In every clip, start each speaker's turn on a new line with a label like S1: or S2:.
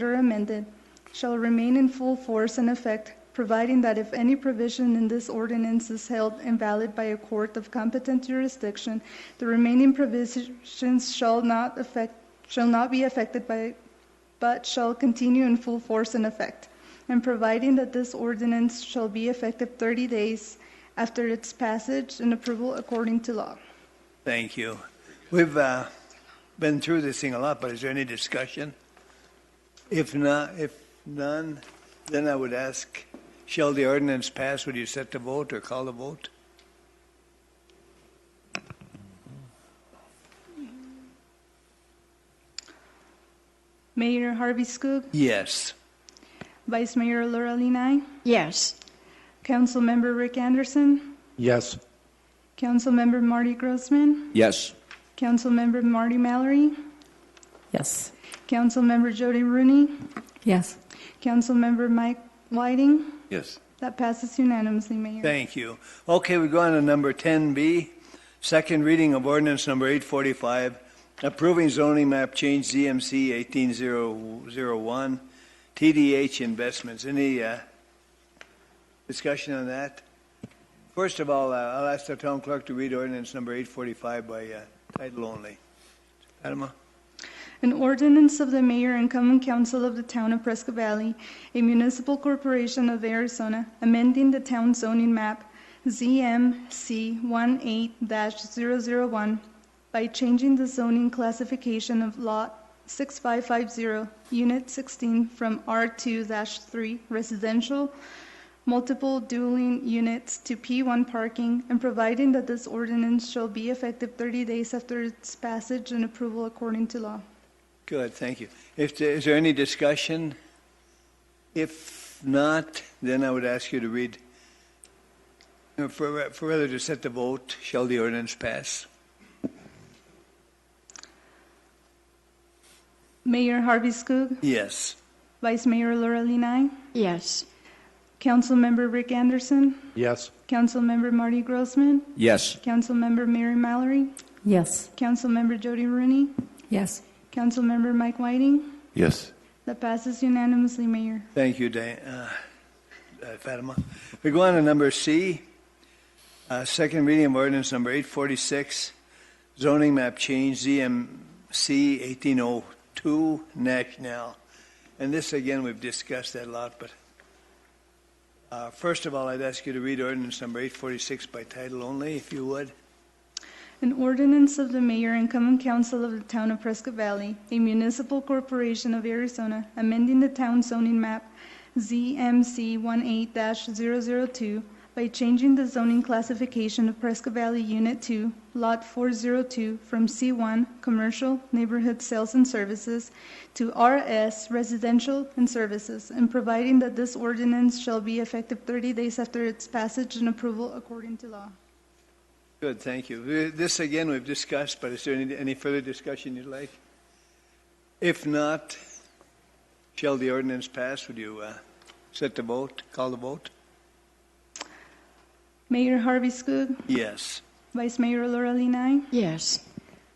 S1: later amended, shall remain in full force and effect, providing that if any provision in this ordinance is held invalid by a court of competent jurisdiction, the remaining provisions shall not affect, shall not be affected by, but shall continue in full force and effect, and providing that this ordinance shall be effective 30 days after its passage and approval according to law.
S2: Thank you. We've uh, been through this thing a lot, but is there any discussion? If not, if none, then I would ask, shall the ordinance pass? Would you set the vote or call the vote?
S1: Mayor Harvey Skook,
S2: Yes.
S1: Vice Mayor Laura Council
S3: Yes.
S1: Councilmember Rick Anderson,
S4: Yes.
S1: Councilmember Marty Grossman,
S4: Yes.
S1: Councilmember Marty Mallory,
S5: Yes.
S1: Councilmember Jody Rooney,
S5: Yes.
S1: Councilmember Mike Whiting.
S4: Yes.
S1: That passes unanimously, Mayor.
S2: Thank you. Okay, we go on to number 10B, second reading of ordinance number 845, approving zoning map change ZMC 18001, TDH investments. Any uh, discussion on that? First of all, uh, I'll ask the town clerk to read ordinance number 845 by uh, title only. Adama?
S1: An ordinance of the mayor and common council of the town of Prescott Valley, a municipal corporation of Arizona, amending the town zoning map ZMC 18-001 by changing the zoning classification of lot 6550, unit 16, from R2-3 residential multiple dueling units to P1 parking and providing that this ordinance shall be effective 30 days after its passage and approval according to law.
S2: Good, thank you. If, there- is there any discussion? If not, then I would ask you to read, uh, for for rather to set the vote, shall the ordinance pass?
S1: Mayor Harvey Skook,
S2: Yes.
S1: Vice Mayor Laura Council
S3: Yes.
S1: Councilmember Rick Anderson,
S4: Yes.
S1: Councilmember Marty Grossman,
S4: Yes.
S1: Councilmember Mary Mallory,
S5: Yes.
S1: Councilmember Jody Rooney,
S5: Yes.
S1: Councilmember Mike Whiting.
S4: Yes.
S1: That passes unanimously, Mayor.
S2: Thank you, Dan, uh, uh, Fatima. We go on to number C, uh, second reading of ordinance number 846, zoning map change ZMC 1802 National. And this, again, we've discussed that a lot, but uh, first of all, I'd ask you to read ordinance number 846 by title only, if you would.
S1: An ordinance of the mayor and common council of the town of Prescott Valley, a municipal corporation of Arizona, amending the town zoning map ZMC 18-002 by changing the zoning classification of Prescott Valley Unit 2, Lot 402, from C1 Commercial Neighborhood Sales and Services to RS Residential and Services, and providing that this ordinance shall be effective 30 days after its passage and approval according to law.
S2: Good, thank you. Uh, This, again, we've discussed, but is there any, any further discussion you'd like? If not, shall the ordinance pass? Would you uh, set the vote, call the vote?
S1: Mayor Harvey Skook,
S2: Yes.
S1: Vice Mayor Laura Council
S3: Yes.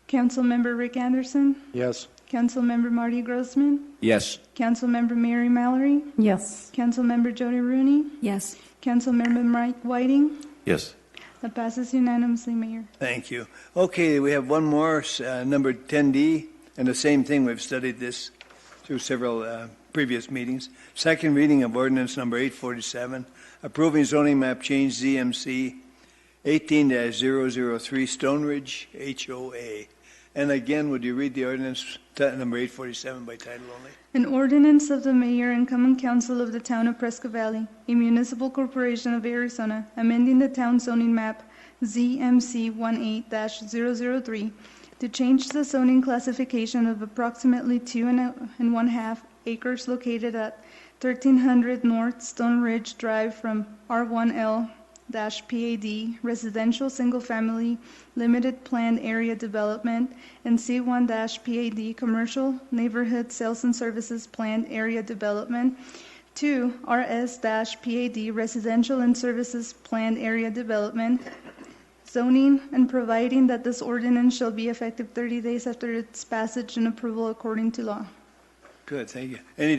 S1: Councilmember Rick Anderson,
S4: Yes.
S1: Councilmember Marty Grossman,
S4: Yes.
S1: Councilmember Mary Mallory,
S5: Yes.
S1: Councilmember Jody Rooney,
S5: Yes.
S1: Councilmember Mike Whiting.
S4: Yes.
S1: That passes unanimously, Mayor.
S2: Thank you. Okay, we have one more, uh, number 10D, and the same thing, we've studied this through several uh, previous meetings. Second reading of ordinance number 847, approving zoning map change ZMC 18-003 Stone Ridge HOA. And again, would you read the ordinance, ti- number 847 by title only?
S1: An ordinance of the mayor and common council of the town of Prescott Valley, a municipal corporation of Arizona, amending the town zoning map ZMC 18-003 to change the zoning classification of approximately two and a- and one-half acres located at 1300 North Stone Ridge Drive from R1L-PAD Residential Single Family Limited Planned Area Development and C1-PAD Commercial Neighborhood Sales and Services Planned Area Development to RS-PAD Residential and Services Planned Area Development zoning and providing that this ordinance shall be effective 30 days after its passage and approval according to law.
S2: Good, thank you. Any